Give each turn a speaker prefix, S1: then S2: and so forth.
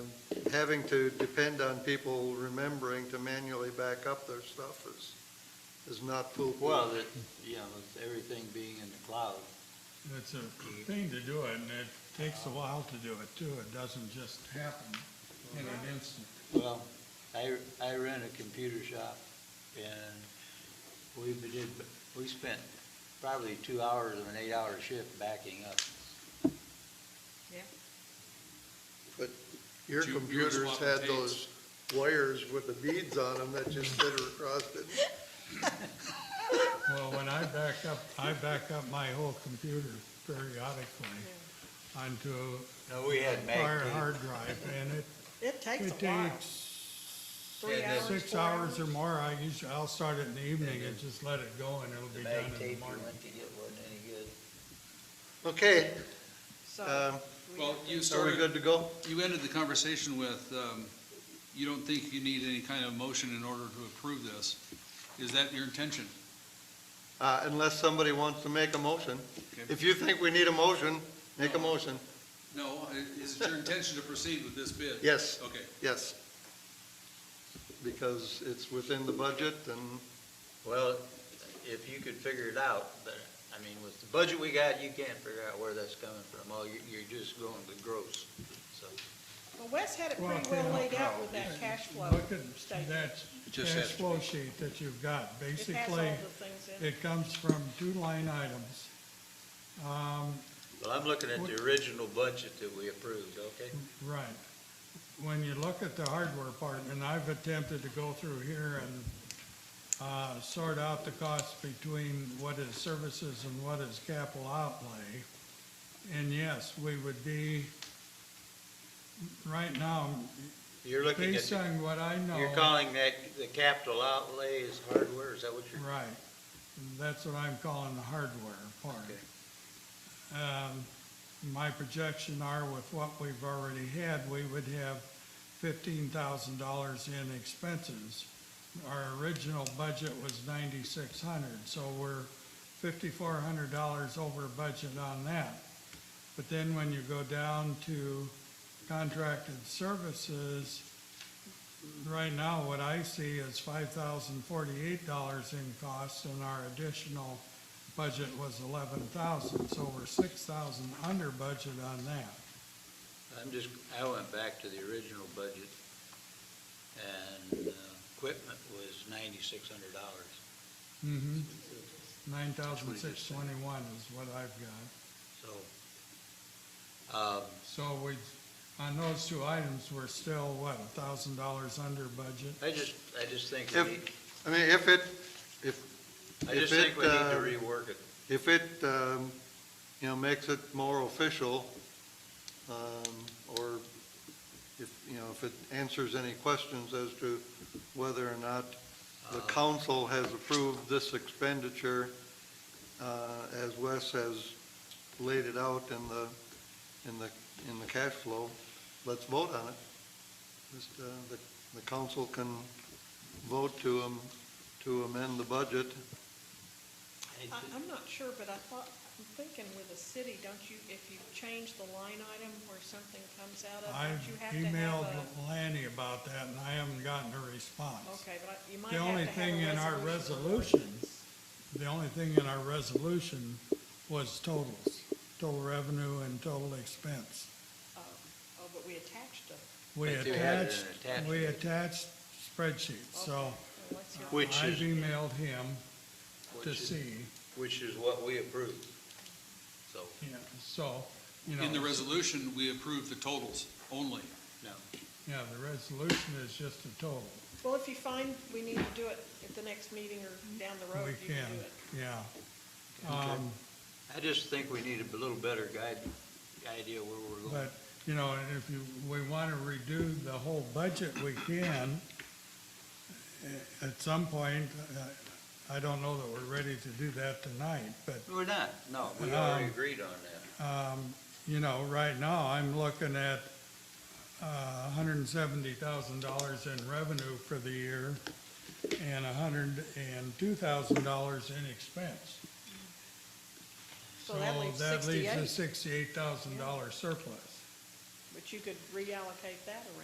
S1: having to depend on people remembering to manually back up their stuff is, is not foolproof.
S2: Well, that, you know, with everything being in the cloud,
S3: It's a thing to do it, and it takes a while to do it too. It doesn't just happen in an instant.
S2: well, I, I ran a computer shop and we did, we spent probably two hours of an eight-hour shift backing up.
S1: Your
S4: You- you were
S1: computers
S4: swapping
S1: had
S4: tapes.
S1: those wires with the beads on them that just sit across it.
S3: Well, when I back up, I back up my whole computer periodically onto
S2: No, we
S3: a
S2: had mag
S3: prior
S2: tape.
S3: hard drive, and it,
S5: It takes
S3: it
S5: a while.
S3: takes
S5: Three hours,
S3: six
S5: four
S3: hours or
S5: hours.
S3: more. I usually, I'll start it in the evening
S2: then
S3: and just let it go, and it'll
S2: The
S3: be
S2: mag
S3: done in
S2: tape
S3: the
S2: you
S3: morning.
S2: went to get wasn't any good.
S1: Okay,
S5: So
S1: um,
S5: we
S4: Well,
S5: have to-
S4: you
S1: are we
S4: started,
S1: good to go?
S4: you ended the conversation with, um, you don't think you need any kind of motion in order to approve this. Is that your intention?
S1: Uh, unless somebody wants to make a motion.
S4: Okay.
S1: If you think we need a motion, make a
S4: No.
S1: motion.
S4: No, i- is it your intention to proceed with this bid?
S1: Yes.
S4: Okay,
S1: Yes. Because it's within the budget and,
S2: Well, if you could figure it out, but, I mean, with the budget we got, you can't figure out where that's coming from. All, you're, you're just going with gross, so.
S5: Well, Wes had it
S3: Well,
S5: pretty well
S3: yeah.
S5: laid out with that cash flow
S3: Look at
S5: statement.
S3: that
S4: just
S3: cash
S4: has to
S3: flow sheet that you've got.
S5: It has all the
S3: Basically,
S5: things in it.
S3: it comes from two line items. Um,
S2: Well, I'm looking at the original budget that we approved, okay?
S3: Right. When you look at the hardware part, and I've attempted to go through here and uh, sort out the costs between what is services and what is capital outlay. And yes, we would be, right now,
S2: You're looking at,
S3: based
S2: the-
S3: on what I know.
S2: you're calling that, the capital outlay is hardware, is that what you're?
S3: Right. That's what I'm calling the hardware part.
S2: Okay.
S3: Um, My projection are with what we've already had, we would have fifteen thousand dollars in expenses. Our original budget was ninety-six hundred, so we're fifty-four hundred dollars over budget on that. But then when you go down to contracted services, right now, what I see is five thousand forty-eight dollars in costs, and our additional budget was eleven thousand, so we're six thousand under budget on that.
S2: I'm just, I went back to the original budget and uh, equipment was ninety-six hundred dollars.
S3: Mm-hmm. Nine thousand six twenty-one is what I've got.
S2: So, um,
S3: So we, on those two items, we're still, what, a thousand dollars under budget?
S2: I just, I just think
S1: If-
S2: we need,
S1: I mean, if it,
S2: I just
S1: if it,
S2: think we need to
S1: uh,
S2: rework it.
S1: if it, um, you know, makes it more official, um, or if, you know, if it answers any questions as to whether or not the
S2: Uh,
S1: council has approved this expenditure, uh, as Wes has laid it out in the, in the, in the cash flow, let's vote on it. Just, uh, the, the council can vote to, um, to amend the budget.
S2: I
S5: I,
S2: thi-
S5: I'm not sure, but I thought, I'm thinking with a city, don't you, if you change the line item where something comes out of,
S3: I
S5: don't you have to have
S3: emailed
S5: a?
S3: Lanny about that, and I haven't gotten a response.
S5: Okay, but I- you might
S3: The
S5: have
S3: only
S5: to have a
S3: thing in our
S5: resolution.
S3: The only thing in our resolution was totals, total revenue and total expense.
S5: Oh, oh, but we attached them.
S3: We
S2: But you had it
S3: attached,
S2: in attachment.
S3: we attached spreadsheets, so
S5: Okay, well, let's hear-
S2: Which
S3: I've
S2: is,
S3: emailed him to
S2: which is,
S3: see,
S2: which is what we approved. So,
S3: yeah, so, you know.
S4: in the resolution, we approve the totals only.
S2: no.
S3: Yeah, the resolution is just a total.
S5: Well, if you find we need to do it at the next meeting or down the road,
S3: We
S5: you
S3: can,
S5: can do it.
S3: yeah. Um,
S2: I just think we need a little better guide, idea where we're going.
S3: But, you know, and if you, we want to redo the whole budget, we can. At some point, uh, I- I don't know that we're ready to do that tonight, but,
S2: We're not, no, we already
S3: Um,
S2: agreed on that.
S3: um, you know, right now, I'm looking at uh, $170,000 in revenue for the year and $102,000 in expense.
S5: So that leaves
S3: So that leaves a
S5: sixty-eight,
S3: $68,000 surplus.
S5: but you could reallocate that around.